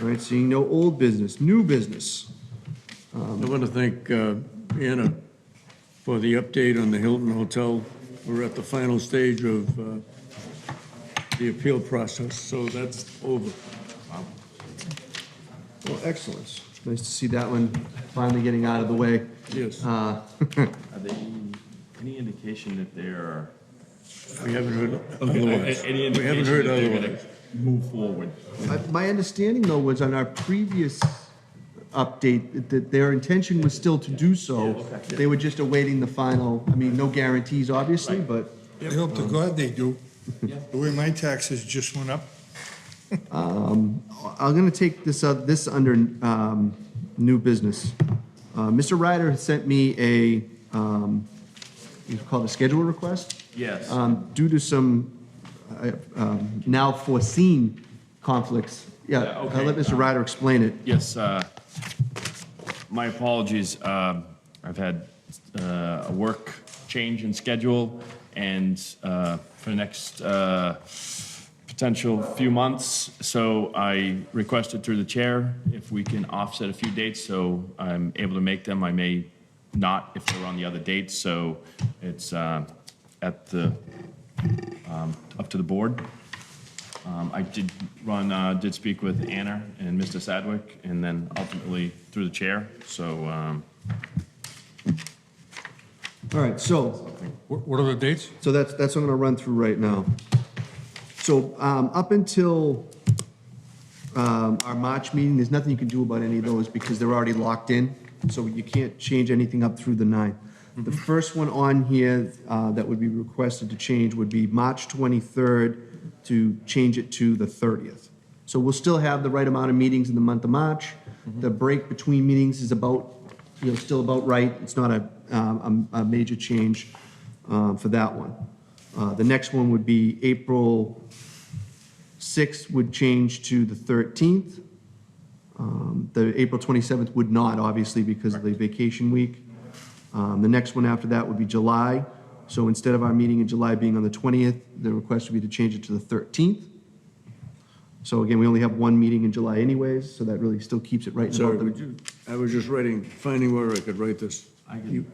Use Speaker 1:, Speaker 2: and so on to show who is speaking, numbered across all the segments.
Speaker 1: All right, seeing no old business, new business.
Speaker 2: I want to thank uh, Anna for the update on the Hilton Hotel. We're at the final stage of uh, the appeal process, so that's over.
Speaker 1: Well, excellent. It's nice to see that one finally getting out of the way.
Speaker 2: Yes,
Speaker 1: Uh,
Speaker 3: Are they, any indication that they're?
Speaker 2: we haven't heard otherwise.
Speaker 3: Any
Speaker 2: We haven't
Speaker 3: indication
Speaker 2: heard
Speaker 3: that they're gonna
Speaker 2: otherwise.
Speaker 3: move forward?
Speaker 1: I- My understanding, though, was on our previous update, that- that their intention was still to do so. They were just awaiting the final, I mean, no guarantees, obviously, but
Speaker 4: I hope to God they do. The way my taxes just went up,
Speaker 1: I'm going to take this, up- this under um, new business. Uh, Mr. Ryder has sent me a, um, it's called a schedule request.
Speaker 3: Yes.
Speaker 1: Um, Due to some uh, um, now foreseen conflicts. Yeah,
Speaker 3: Yeah,
Speaker 1: I'll
Speaker 3: okay.
Speaker 1: let Mr. Ryder explain it.
Speaker 3: Yes, uh, my apologies. Um, I've had uh, a work change in schedule, and uh, for the next uh, potential few months, so I requested through the chair if we can offset a few dates, so I'm able to make them. I may not if they're on the other dates, so it's uh, at the, um, up to the board. Um, I did run, uh, did speak with Anna and Mr. Sadwick, and then ultimately through the chair, so, um,
Speaker 1: All right, so
Speaker 5: What what are the dates?
Speaker 1: So that's, that's what I'm gonna run through right now. So, um, up until, um, our March meeting, there's nothing you can do about any of those because they're already locked in. So you can't change anything up through the nine. The first one on here, uh, that would be requested to change would be March twenty-third to change it to the thirtieth. So we'll still have the right amount of meetings in the month of March. The break between meetings is about, you know, still about right. It's not a, um, a, a major change, um, for that one. Uh, the next one would be April 6th would change to the 13th. Um, The April 27th would not, obviously, because of the vacation week. Um, The next one after that would be July. So instead of our meeting in July being on the 20th, the request would be to change it to the 13th. So again, we only have one meeting in July anyways, so that really still keeps it right in
Speaker 2: Sorry,
Speaker 1: about
Speaker 2: would
Speaker 1: the-
Speaker 2: you, I was just writing, finding where I could write this.
Speaker 3: I could,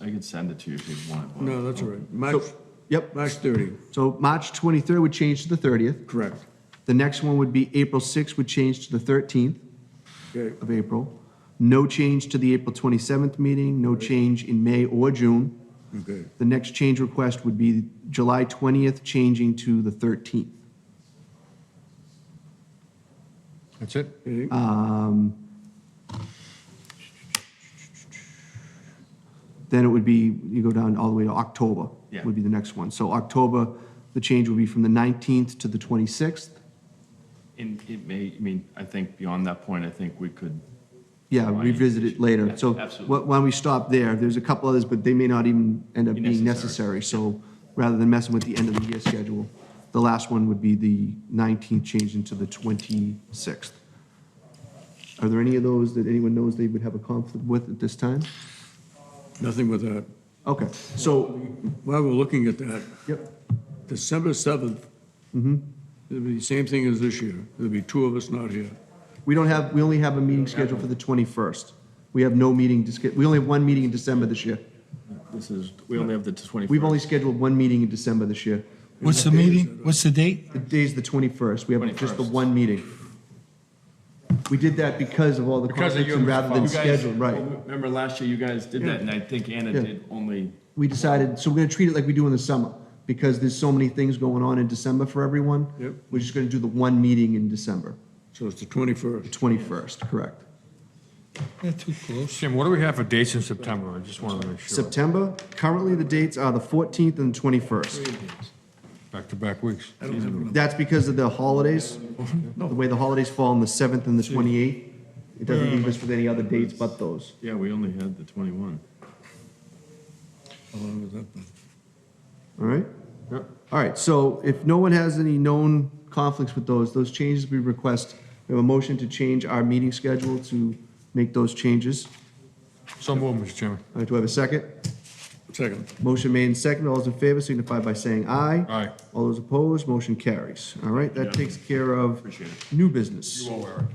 Speaker 3: I could send it to you if you want. but-
Speaker 2: No, that's all right. March,
Speaker 1: So- Yep,
Speaker 2: March 30,
Speaker 1: so March 23rd would change to the 30th.
Speaker 2: correct.
Speaker 1: The next one would be April 6th would change to the 13th.
Speaker 2: Okay,
Speaker 1: of April. No change to the April 27th meeting, no change in May or June.
Speaker 2: okay.
Speaker 1: The next change request would be July 20th, changing to the 13th.
Speaker 5: That's it?
Speaker 2: Okay.
Speaker 1: Then it would be, you go down all the way to October,
Speaker 3: Yeah.
Speaker 1: would be the next one. So October, the change would be from the 19th to the 26th.
Speaker 3: And it may, I mean, I think beyond that point, I think we could,
Speaker 1: Yeah,
Speaker 3: Right.
Speaker 1: revisit it later.
Speaker 3: Yeah,
Speaker 1: So
Speaker 3: absolutely.
Speaker 1: wh- why don't we stop there? There's a couple others, but they may not even end up
Speaker 3: Be
Speaker 1: being
Speaker 3: necessary.
Speaker 1: necessary. So rather than messing with the end of the year schedule, the last one would be the 19th change into the 26th. Are there any of those that anyone knows they would have a conflict with at this time?
Speaker 2: Nothing with that.
Speaker 1: Okay, so,
Speaker 2: While we're looking at that,
Speaker 1: yep,
Speaker 2: December 7th, it'll be the same thing as this year. There'll be two of us not here.
Speaker 1: we don't have, we only have a meeting scheduled for the 21st. We have no meeting, to sch- we only have one meeting in December this year.
Speaker 3: this is, we only have the 21st.
Speaker 1: We've only scheduled one meeting in December this year.
Speaker 6: What's the meeting? What's the date?
Speaker 1: The day's the 21st, we have just the
Speaker 3: 21st.
Speaker 1: one meeting. We did that because of all the
Speaker 5: Because of
Speaker 1: conflicts
Speaker 5: you,
Speaker 1: and
Speaker 5: Mr.
Speaker 1: rather
Speaker 5: Fowler.
Speaker 1: than
Speaker 3: You guys-
Speaker 1: schedule, right.
Speaker 3: Remember last year you guys did that, and I think Anna
Speaker 1: Yeah.
Speaker 3: did only,
Speaker 1: We decided, so we're gonna treat it like we do in the summer, because there's so many things going on in December for everyone.
Speaker 2: Yep.
Speaker 1: We're just gonna do the one meeting in December,
Speaker 2: So it's the 21st.
Speaker 1: 21st, correct.
Speaker 4: they're too close.
Speaker 5: Jim, what do we have for dates in September? I just wanted to make sure.
Speaker 1: September, currently the dates are the 14th and 21st.
Speaker 5: Back-to-back weeks.
Speaker 2: I don't have another-
Speaker 1: That's because of the holidays, the way the holidays fall on the 7th and the 28th. It doesn't leave us with any other dates but those.
Speaker 3: yeah, we only had the 21.
Speaker 2: along with that, but-
Speaker 1: All right?
Speaker 5: Yep.
Speaker 1: All right, so if no one has any known conflicts with those, those changes we request, we have a motion to change our meeting schedule to make those changes.
Speaker 5: So moved, Mr. Chairman.
Speaker 1: All right, do I have a second?
Speaker 2: Second.
Speaker 1: Motion made and second. All those in favor signify by saying aye.
Speaker 5: Aye.
Speaker 1: All those opposed, motion carries. All right, that takes care of
Speaker 3: Appreciate it.
Speaker 1: new business.
Speaker 5: owe Eric.